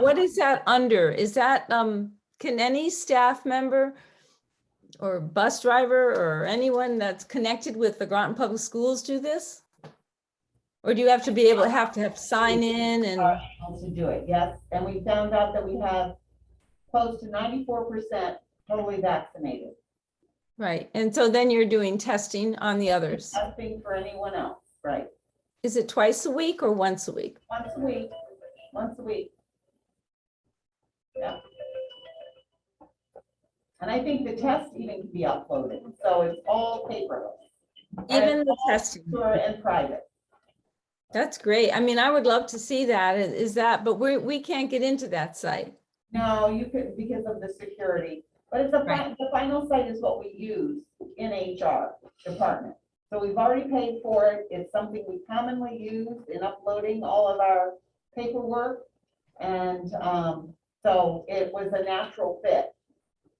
What is that under? Is that, um, can any staff member or bus driver or anyone that's connected with the Groton Public Schools do this? Or do you have to be able, have to have sign in and, How to do it, yes, and we found out that we have close to ninety-four percent totally vaccinated, right? And so then you're doing testing on the others. testing for anyone else, right? Is it twice a week or once a week? Once a week, once a week. Yeah. And I think the test even can be uploaded, so it's all paperless, Even the testing? secure and private. That's great. I mean, I would love to see that. Is- Is that, but we, we can't get into that site. No, you could, because of the security, but it's the, fi- the final site is what we use in HR department. So we've already paid for it, it's something we commonly use in uploading all of our paperwork. And, um, so it was a natural fit.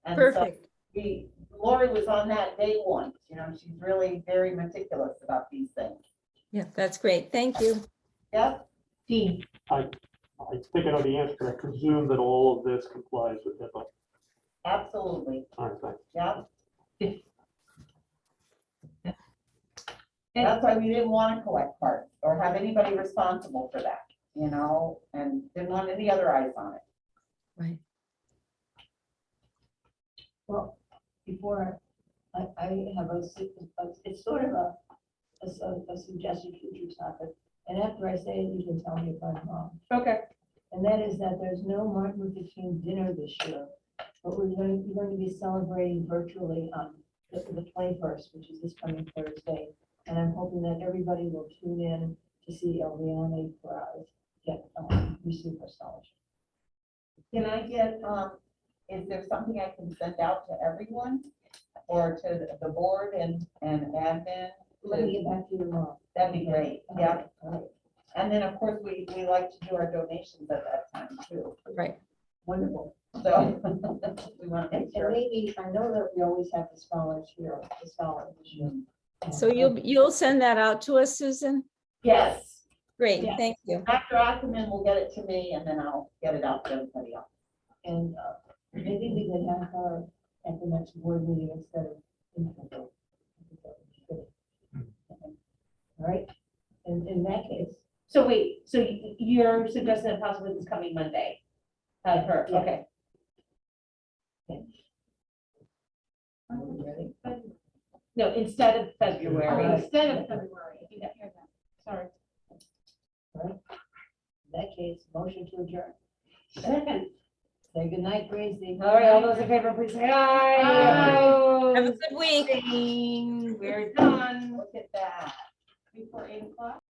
And so Perfect. we, Lori was on that day one, you know, she's really very meticulous about these things. Yeah, that's great. Thank you. Yep, D, I think I know the answer. I presume that all of this complies with HIPAA. absolutely, All right, thanks. yep. That's why we didn't want to collect parts or have anybody responsible for that, you know, and didn't want any other eyes on it. Right. well, before, I, I have a, su- a- it's sort of a, a su- a suggested future topic. And after I say it, you can tell me if I'm wrong. Okay. And that is that there's no Martin Luther King dinner this year, but we're going, to we're going to be celebrating virtually on the, the twenty-first, which is this coming Thursday. And I'm hoping that everybody will tune in to see Eliana Perez get, um, receive her scholarship. Can I get, um, is there something I can send out to everyone or to the board and, and admin? Let me get back to you tomorrow. That'd be great, yeah. All right. And then, of course, we, we like to do our donations at that time too. Right. Wonderful. So we want to And make and sure. maybe, I know that we always have the scholars here, the scholars. So you'll, you'll send that out to us, Susan? Yes, Great, Yeah. thank you. Dr. Ackerman will get it to me and then I'll get it out to everybody else. And uh, maybe we could have her at the next board meeting instead of. in February. All right, in, in that case, So wait, so y- you're suggesting that possibly this coming Monday? Have her, Yeah. okay. are we ready? No, instead of February. Okay. Instead of February, if you didn't hear that, sorry. In that case, motion to adjourn. Second. Say goodnight, Gracie. All right, all those in favor, please say aye. Have a good week. Aye. We're done. Look at that. Before eight o'clock.